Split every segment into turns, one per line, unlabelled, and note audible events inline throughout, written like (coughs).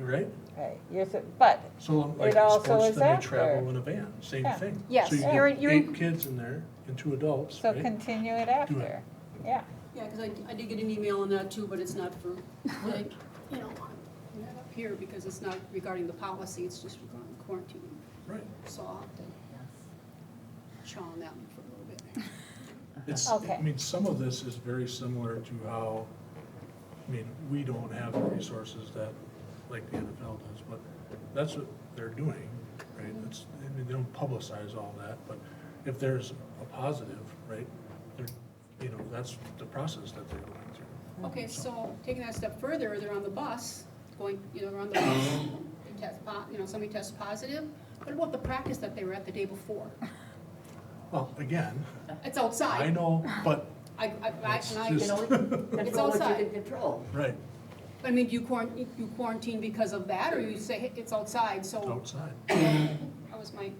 right?
Right, you're, so- but,
So
It
like
also
sports,
is
then they
after.
travel in a van, same
Yeah.
thing.
Yes,
So you
you're
get
in- you're in-
eight kids in there and two adults,
so
right?
continue it after, yeah.
Yeah, because I, I did get an email on that too, but it's not for, like, (laughs) you know, I'm not up here because it's not regarding the policy, it's just regarding quarantine.
Right.
So I'll have to chaw on that one for a little
(laughs)
bit.
It's,
Uh-huh. Okay.
I mean, some of this is very similar to how, I mean, we don't have the resources that, like the NFL does, but that's what they're doing, right? It's, I mean, they don't publicize all that, but if there's a positive, right, they're, you know, that's the process that they're going through.
Okay, so taking that step further, they're on the bus, going, you know, they're on
(coughs)
the bus, they test, po- you know, somebody tests positive. What about the practice that they were at the day
(laughs)
before?
Well, again,
It's
I
outside.
know, but
I, I, I,
it's
and I,
just,
Control what you
outside.
can control.
(laughs) right,
I mean, do you quarantine, you quarantine because of that, or you say, hey, it's outside, so
outside.
that was my,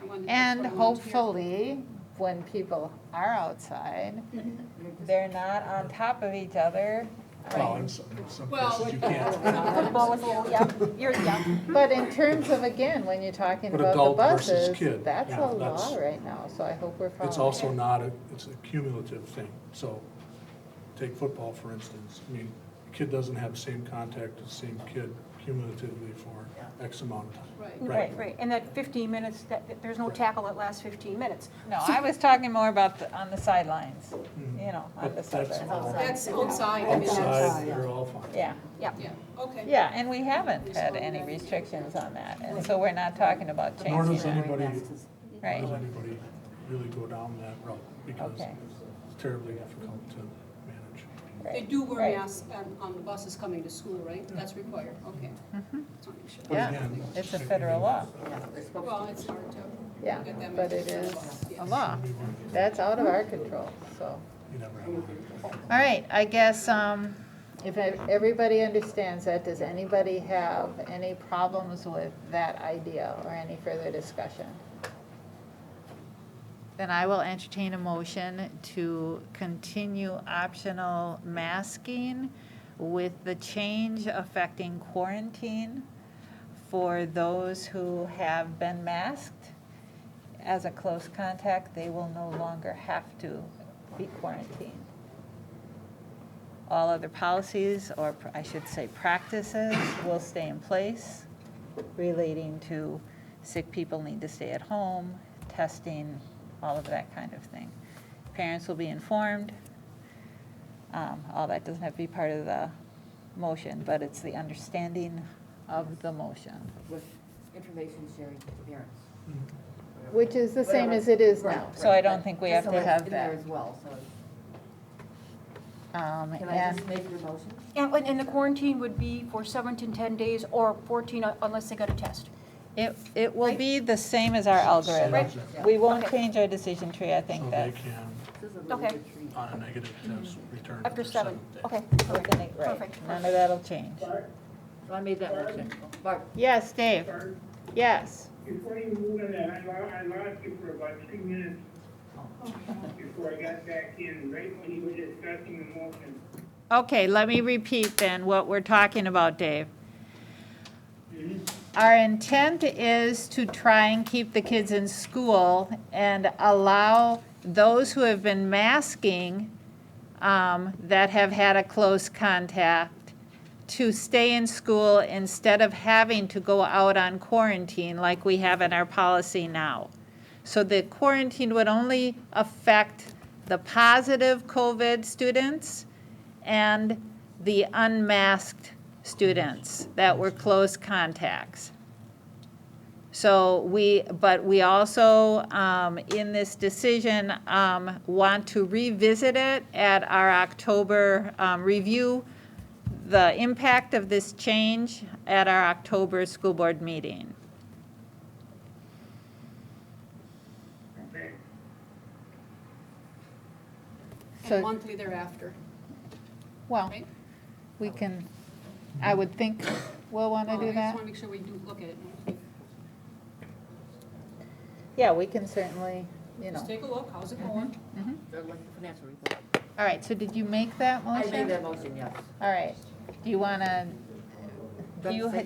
I wanted to. that's
And
what I wanted to hear.
hopefully, when people are outside,
(laughs) They're not on top of each other.
Well, in some, in some
Well, (laughs)
places you can't.
Football was, yeah, you're, yeah.
but in terms of, again, when you're talking
But
about the
adult versus
buses,
kid,
that's
yeah,
a law
that's-
right now, so I hope we're following.
It's also not, a it's a cumulative thing. So take football, for instance. I mean, a kid doesn't have the same contact as the same kid cumulatively for X amount of time.
Right.
Right, right, and that 15 minutes, that, that there's no tackle that lasts 15 minutes.
No, I was talking more about the, on the sidelines, you know, on the
Mm-hmm. But that's
sidelines.
all
That's outside, I mean, that's,
Outside, they're all fine.
Yeah,
Yeah,
yeah, okay.
yeah, and we haven't had any restrictions on that, and so we're not talking about
Nor
changing
does
that,
anybody, nor does
right?
anybody really go down that route because
Okay.
it's terribly difficult to manage.
They
right.
do wear
Right.
masks on, on the buses coming to school, right? That's required, okay. Just wanna make sure.
But
Yeah,
again,
Mm-hmm. It's a
I- I
federal
mean,
law,
Well, it's hard to
Yeah,
get that many.
but it is a law.
we want to-
That's out of our control, so.
You never have. one.
All right, I guess, um, if ev- everybody understands that, does anybody have any problems with that idea or any further discussion? Then I will entertain a motion to continue optional masking with the change affecting quarantine for those who have been masked. As a close contact, they will no longer have to be quarantined all other policies, or pr- I should say practices, will stay in place relating to sick people need to stay at home, testing, all of that kind of thing. Parents will be informed. Um, All that doesn't have to be part of the motion, but it's the understanding of the motion.
With information sharing to parents.
Mm-hmm.
Which is the same as it is now.
So I don't think we have
So
to
it's
have
in there
that.
as well, so
Um,
can I
And
just make your motion?
And, and the quarantine would be for seven to 10 days or 14 uh, unless they got a test.
it, it
Will be the same as our algorithm.
Same as it.
We won't change our decision tree, I think
So
that's.
they can,
This is a really
Okay.
good treat.
on a negative test, return it
After
the
seven,
seventh day.
okay,
We're
perfect.
gonna- right.
Perfect.
None of that'll change.
So I made that motion. Barb,
Yes, Dave? Yes.
Before you move on that, I lost, I lost you for about two minutes before I got back in, right when you were discussing the motion.
Okay, let me repeat then what we're talking about, Dave.
Mhm.
Our intent is to try and keep the kids in school and allow those who have been masking um, that have had a close contact to stay in school instead of having to go out on quarantine like we have in our policy now. So the quarantine would only affect the positive COVID students and the unmasked students that were close contacts. So we, but we also, um, in this decision, um, want to revisit it at our October, um, review the impact of this change at our October school board meeting.
Okay.
So-
And monthly thereafter,
Well,
right?
we can, I would think we'll want to
Oh,
do
I just
that.
wanna make sure we do look at it.
Yeah, we can certainly, you
Just take a look, how's
Mm-hmm.
it going?
they're uh, like the financial report.
All right, so did you make that
I
motion?
made that motion, yes.
All right, do you want to, do you,